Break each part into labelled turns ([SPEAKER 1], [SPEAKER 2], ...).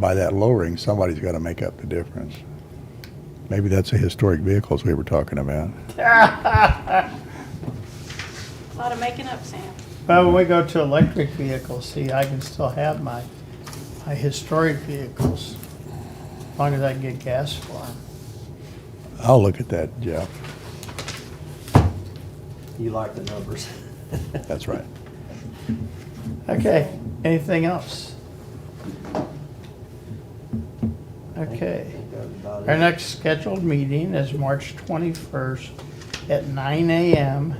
[SPEAKER 1] by that lowering, somebody's got to make up the difference. Maybe that's the historic vehicles we were talking about.
[SPEAKER 2] A lot of making up, Sam.
[SPEAKER 3] Well, when we go to electric vehicles, see, I can still have my, my historic vehicles, as long as I can get gas for them.
[SPEAKER 1] I'll look at that, Jeff.
[SPEAKER 4] You like the numbers.
[SPEAKER 1] That's right.
[SPEAKER 3] Okay, anything else? Okay, our next scheduled meeting is March twenty-first at nine AM.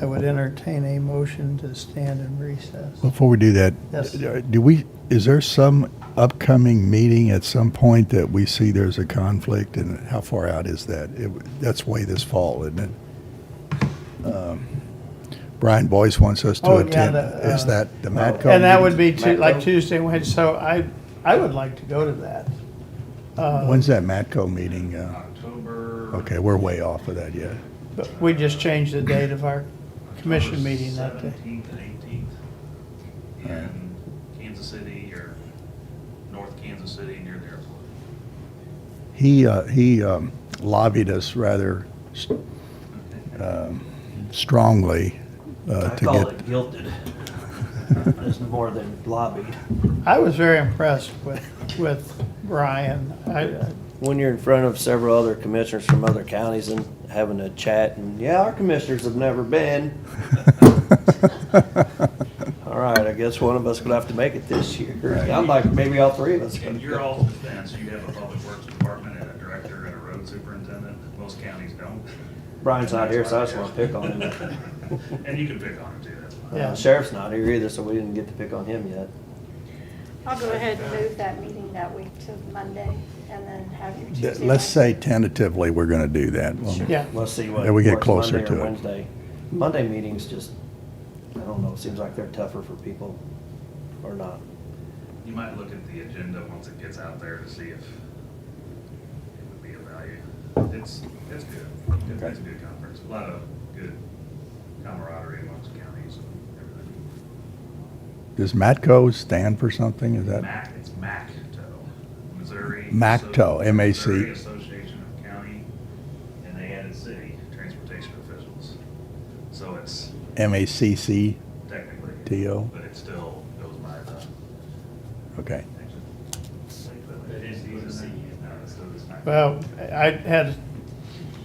[SPEAKER 3] I would entertain a motion to stand in recess.
[SPEAKER 1] Before we do that, uh,
[SPEAKER 3] Yes.
[SPEAKER 1] do we, is there some upcoming meeting at some point that we see there's a conflict and how far out is that? It, that's way this fall, isn't it? Um, Brian Boyce wants us to
[SPEAKER 3] Oh, yeah,
[SPEAKER 1] attend.
[SPEAKER 3] the,
[SPEAKER 1] Is
[SPEAKER 3] uh,
[SPEAKER 1] that the Matco?
[SPEAKER 3] And that would
[SPEAKER 1] meeting?
[SPEAKER 3] be Tu- like
[SPEAKER 4] Matco?
[SPEAKER 3] Tuesday, Wednesday, so I, I would like to go to that. Uh,
[SPEAKER 1] When's that Matco meeting? Uh,
[SPEAKER 5] October.
[SPEAKER 1] Okay, we're way off of that yet.
[SPEAKER 3] But we just changed the date of our commission meeting that day.
[SPEAKER 5] Seventeenth and eighteenth in Kansas City or North Kansas City near the airport.
[SPEAKER 1] He, uh, he um, lobbied us rather s- um, strongly uh,
[SPEAKER 4] I
[SPEAKER 1] to
[SPEAKER 4] call
[SPEAKER 1] get,
[SPEAKER 4] it guilted. It's more than lobbied.
[SPEAKER 3] I was very impressed with, with Brian. I,
[SPEAKER 4] When you're in front of several other commissioners from other counties and having a chat and, yeah, our commissioners have never been. All right, I guess one of us gonna have to make it this year.
[SPEAKER 1] Right.
[SPEAKER 4] I'm like, maybe all three of us.
[SPEAKER 5] And
[SPEAKER 4] gonna
[SPEAKER 5] you're
[SPEAKER 4] go.
[SPEAKER 5] all defense, you have a public works department and a director and a road superintendent, most counties don't.
[SPEAKER 4] Brian's not here, so I just wanna pick on him.
[SPEAKER 5] And you can pick on him too, that's fine.
[SPEAKER 3] Yeah.
[SPEAKER 4] Uh, Sheriff's not here either, so we didn't get to pick on him yet.
[SPEAKER 2] I'll go ahead and move that meeting that week to Monday and then have your
[SPEAKER 1] th-
[SPEAKER 2] Tuesday.
[SPEAKER 1] let's
[SPEAKER 2] night.
[SPEAKER 1] say tentatively, we're going to do that. Well,
[SPEAKER 3] yeah,
[SPEAKER 4] We'll see what.
[SPEAKER 1] Yeah, we get
[SPEAKER 4] works
[SPEAKER 1] closer
[SPEAKER 4] Monday or
[SPEAKER 1] to it.
[SPEAKER 4] Wednesday. Monday meetings just, I don't know, seems like they're tougher for people or not.
[SPEAKER 5] You might look at the agenda once it gets out there to see if it would be of value. It's, it's good. It's it's a good conference, a lot of good camaraderie amongst counties and everything.
[SPEAKER 1] Does Matco stand for something? Is that?
[SPEAKER 5] MAC, it's MACTO, Missouri.
[SPEAKER 1] MACTO,
[SPEAKER 5] Asso-
[SPEAKER 1] M.A.C..
[SPEAKER 5] Missouri Association of County and they added city transportation officials. So it's
[SPEAKER 1] M-A-C-C-T-O?
[SPEAKER 5] technically, but it still goes by the.
[SPEAKER 1] Okay.
[SPEAKER 5] It is easy. No, it's still- it's not-
[SPEAKER 3] well, I had a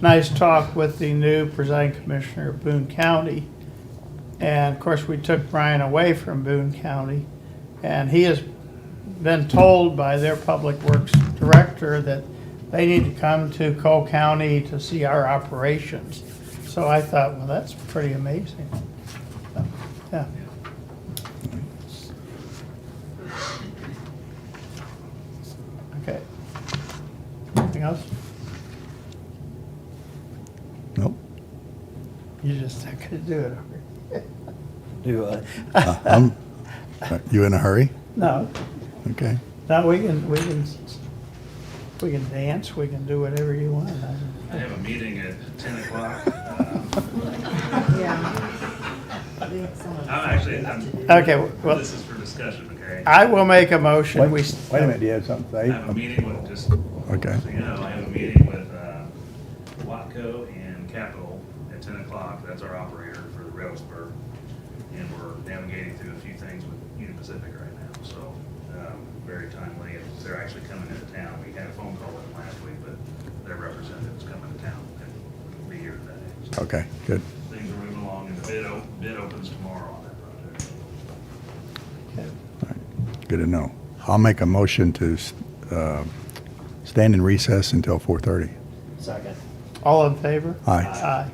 [SPEAKER 3] nice talk with the new presiding commissioner of Boone County. And of course, we took Brian away from Boone County. And he has been told by their public works director that they need to come to Cole County to see our operations. So I thought, well, that's pretty amazing. Yeah. Okay. Anything else?
[SPEAKER 1] Nope.
[SPEAKER 3] You just not gonna do it, are you?
[SPEAKER 4] Do, uh,
[SPEAKER 1] Uh, I'm- uh, You in a hurry?
[SPEAKER 3] No,
[SPEAKER 1] Okay.
[SPEAKER 3] no, we can, we can, we can dance, we can do whatever you want.
[SPEAKER 5] I have a meeting at ten o'clock. Um, I'm actually, I'm.
[SPEAKER 3] Okay, well,
[SPEAKER 5] This is for discussion, okay?
[SPEAKER 3] I will make a motion, we.
[SPEAKER 1] Wait wait a minute, do you have something
[SPEAKER 5] I have a
[SPEAKER 1] to say?
[SPEAKER 5] meeting with, just, so
[SPEAKER 1] Okay.
[SPEAKER 5] you know, I have a meeting with uh, Watco and Capital at ten o'clock. That's our operator for the rail spur. And we're navigating through a few things with Union Pacific right now, so um, very timely. And They're actually coming into town. We had a phone call with them last week, but their representative's coming to town and be here today. So
[SPEAKER 1] Okay, good.
[SPEAKER 5] Things are moving along and the bid, o- bid opens tomorrow on that project.
[SPEAKER 1] All right. Good to know. I'll make a motion to s- uh, stand in recess until 4:30.
[SPEAKER 4] second.
[SPEAKER 3] All in favor?
[SPEAKER 1] Aye.
[SPEAKER 3] Aye.